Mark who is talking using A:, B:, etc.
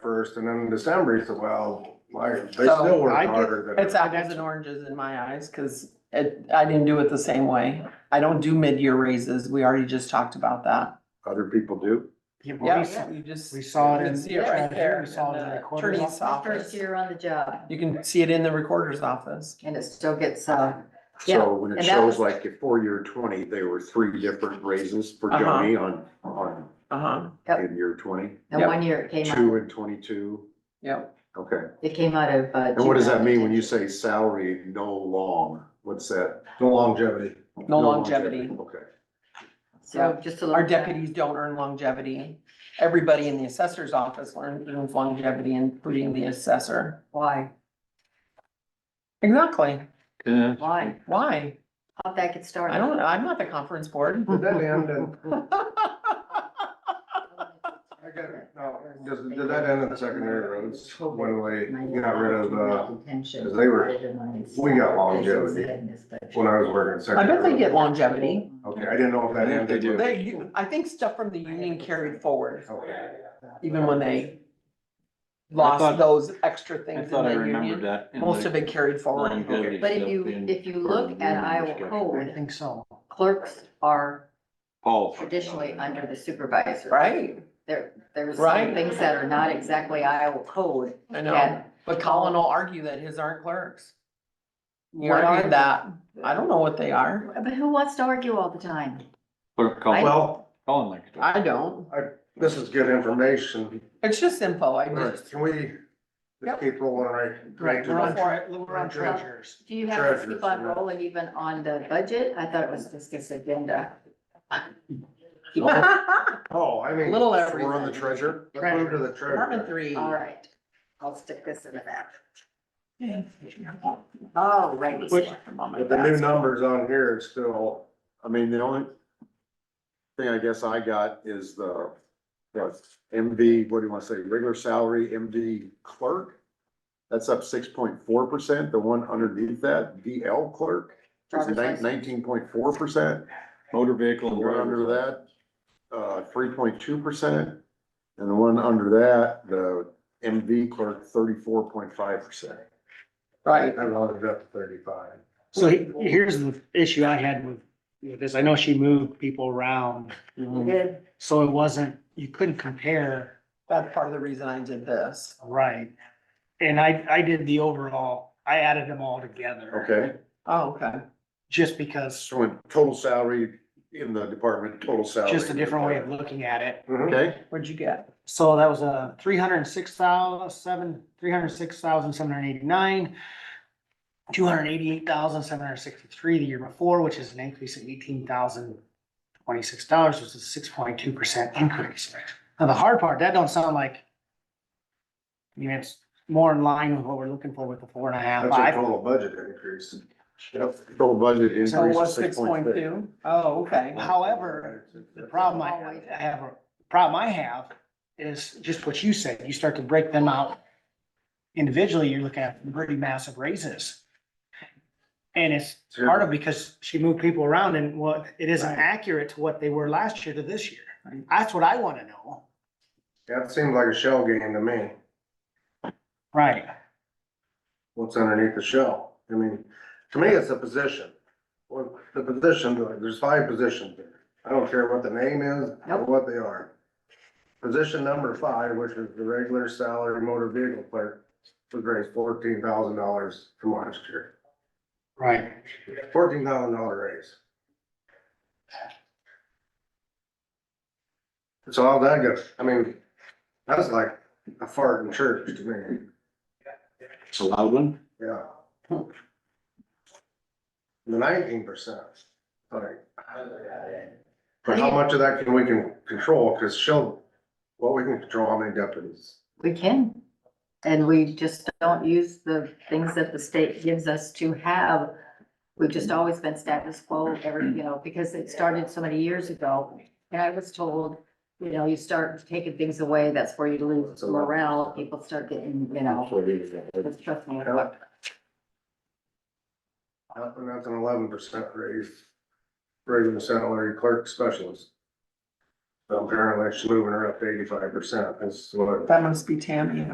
A: first, and then in December, he said, well, like, they
B: So,
A: still work
C: I get-
A: harder than.
B: It's apples and oranges in my eyes, cause it, I didn't do it the same way. I don't do mid-year raises. We already just talked about that.
A: Other people do.
C: Yeah, but we
B: Yeah,
C: saw-
B: you just.
C: we saw
B: you
C: it
B: can
C: in-
B: see it
C: yeah,
B: right
C: right
B: there
C: here, we saw it
B: in
C: in
B: the
C: the recorder's
B: attorney's
D: My First
B: office.
D: year on the job
B: You can see it in the recorder's office.
D: and it still gets, uh, yeah,
E: So when it
D: and that
E: shows
D: was-
E: like your four-year twenty, there were three different raises for
B: Uh-huh.
E: Johnny on, on,
B: Uh-huh,
D: Yep.
E: in year twenty,
D: and
B: Yep.
D: one year it came
E: two
D: out,
E: and twenty-two,
B: yep.
E: okay.
D: it came out of. uh,
E: And what does that mean when you say salary no long? What's that?
A: The longevity.
B: No longevity.
E: Okay,
D: So just a little.
B: Our deputies don't earn longevity. Everybody in the assessor's office learn- earns longevity, including the assessor.
D: Why?
B: Exactly.
D: Why?
B: Why?
D: How'd that get started?
B: I don't, I'm not the conference board.
C: Hmm.
A: Did that end in, I got it. No, does, did that end in the secondary roads when we got rid of, uh,
D: Because
A: they were- we got longevity when I was working in
B: I
A: secondary?
B: bet they
A: roads?
B: get longevity.
D: Oh,
A: Okay, I didn't know if that
C: I think they
A: ended.
C: do.
A: with-
B: They, you- I think stuff from the union carried forward,
A: Okay.
B: even when they
C: thought-
B: lost those extra
C: I
B: things in
C: thought I
B: the
C: remembered
B: union.
C: that. in
B: Most
C: the
B: of it carried forward.
C: longevity
D: But if
C: stuff
D: you,
C: in
D: if you
C: part of
D: look
C: the
D: at
C: union
D: Iowa
C: discussion.
D: code,
C: I think
D: so. Clerks are
C: Paul.
D: traditionally under the supervisor.
B: Right,
D: There, there's
B: Right.
D: some things that are not exactly Iowa code.
B: I know,
D: that
B: but Colin will argue that his aren't clerks. He
D: What are they?
B: argued that, I don't know what they are,
D: But who wants to argue all the time?
C: Or Colin,
A: Well,
C: Colin likes to.
B: I don't,
A: this is good information.
B: it's just info, I just.
A: Can we
B: Yep.
A: just keep rolling right?
C: Right,
A: to
C: we're on
A: the-
C: for it, we're on treasures.
D: Do you have to
A: Treasurer's
D: keep on
A: note.
D: rolling even on the budget? I thought it was just this agenda. Keep on-
B: Department
A: Oh, I mean.
B: Little
A: We're on the
B: everything.
A: treasure. Let's move to the treasure.
B: three.
D: All right, I'll stick this in the back. All right.
A: With the new numbers on here, it's still,
E: I mean, the only thing I guess I got is the, the MD, what do you wanna say, regular salary, MD clerk? That's up six point four percent, the one underneath that, DL clerk, is
D: Driver's license.
E: nineteen point four percent?
C: Motor vehicle
E: The
C: and
E: one under
C: driver's license.
E: that, uh, three point two percent, and the one under that, the MV clerk, thirty-four point five percent.
A: I
B: Right,
A: rounded up to thirty-five.
F: So he- here's the issue I had with, with this. I know she moved people around,
C: Mm-hmm.
D: We did.
F: so it wasn't, you couldn't compare,
B: that's part of the reason I did this.
F: right? And I, I did the overall, I added them all together.
E: Okay,
B: Oh, okay,
F: Just because,
E: so when total salary in the department, total salary. Mm-hmm.
F: just a different way of looking at it.
E: Okay,
B: what'd you get?
F: So that was a three hundred and six thousand, seven, three hundred and six thousand, seven hundred and eighty-nine, two hundred and eighty-eight thousand, seven hundred and sixty-three the year before, which is an increase of eighteen thousand twenty-six dollars, which is a six point two percent increase. Now, the hard part, that don't sound like, I mean, it's more in line with what we're looking for with the four and a half,
A: That's a
F: five.
A: total budget increase.
E: yep, total budget increase
B: So
E: of
B: what's
E: six
B: six
E: point six.
B: two? Oh, okay.
F: However, The problem I I have, the problem I have is just what you said, you start to break them out. Individually, you're looking at pretty massive raises. And it's part of because she moved people around and what, it isn't
B: Right.
F: accurate to what they were last year to this year. That's what I wanna know.
A: That seems like a shell game to me.
F: Right.
A: What's underneath the shell? I mean, to me, it's a position. Well, the position, there's five positions there. I don't care what the name is or
D: Nope.
A: what they are. Position number five, which is the regular salary motor vehicle clerk, was raised fourteen thousand dollars from last year.
F: Right.
A: Fourteen thousand dollar raise. So all that goes, I mean, that's like a fart in church to me,
C: It's a loud one.
A: yeah. The nineteen percent, like. But how much of that can we can control, cause she'll, well, we can control how many deputies.
D: We can. And we just don't use the things that the state gives us to have. We've just always been status quo every, you know, because it started so many years ago. And I was told, you know, you start taking things away, that's where you lose morale, people start getting, you know, it's trust me.
A: Yeah. Uh, And that's an eleven percent raise, regular salary clerk specialist. Apparently she's moving her up to eighty-five percent, that's what.
B: That must be Tammy.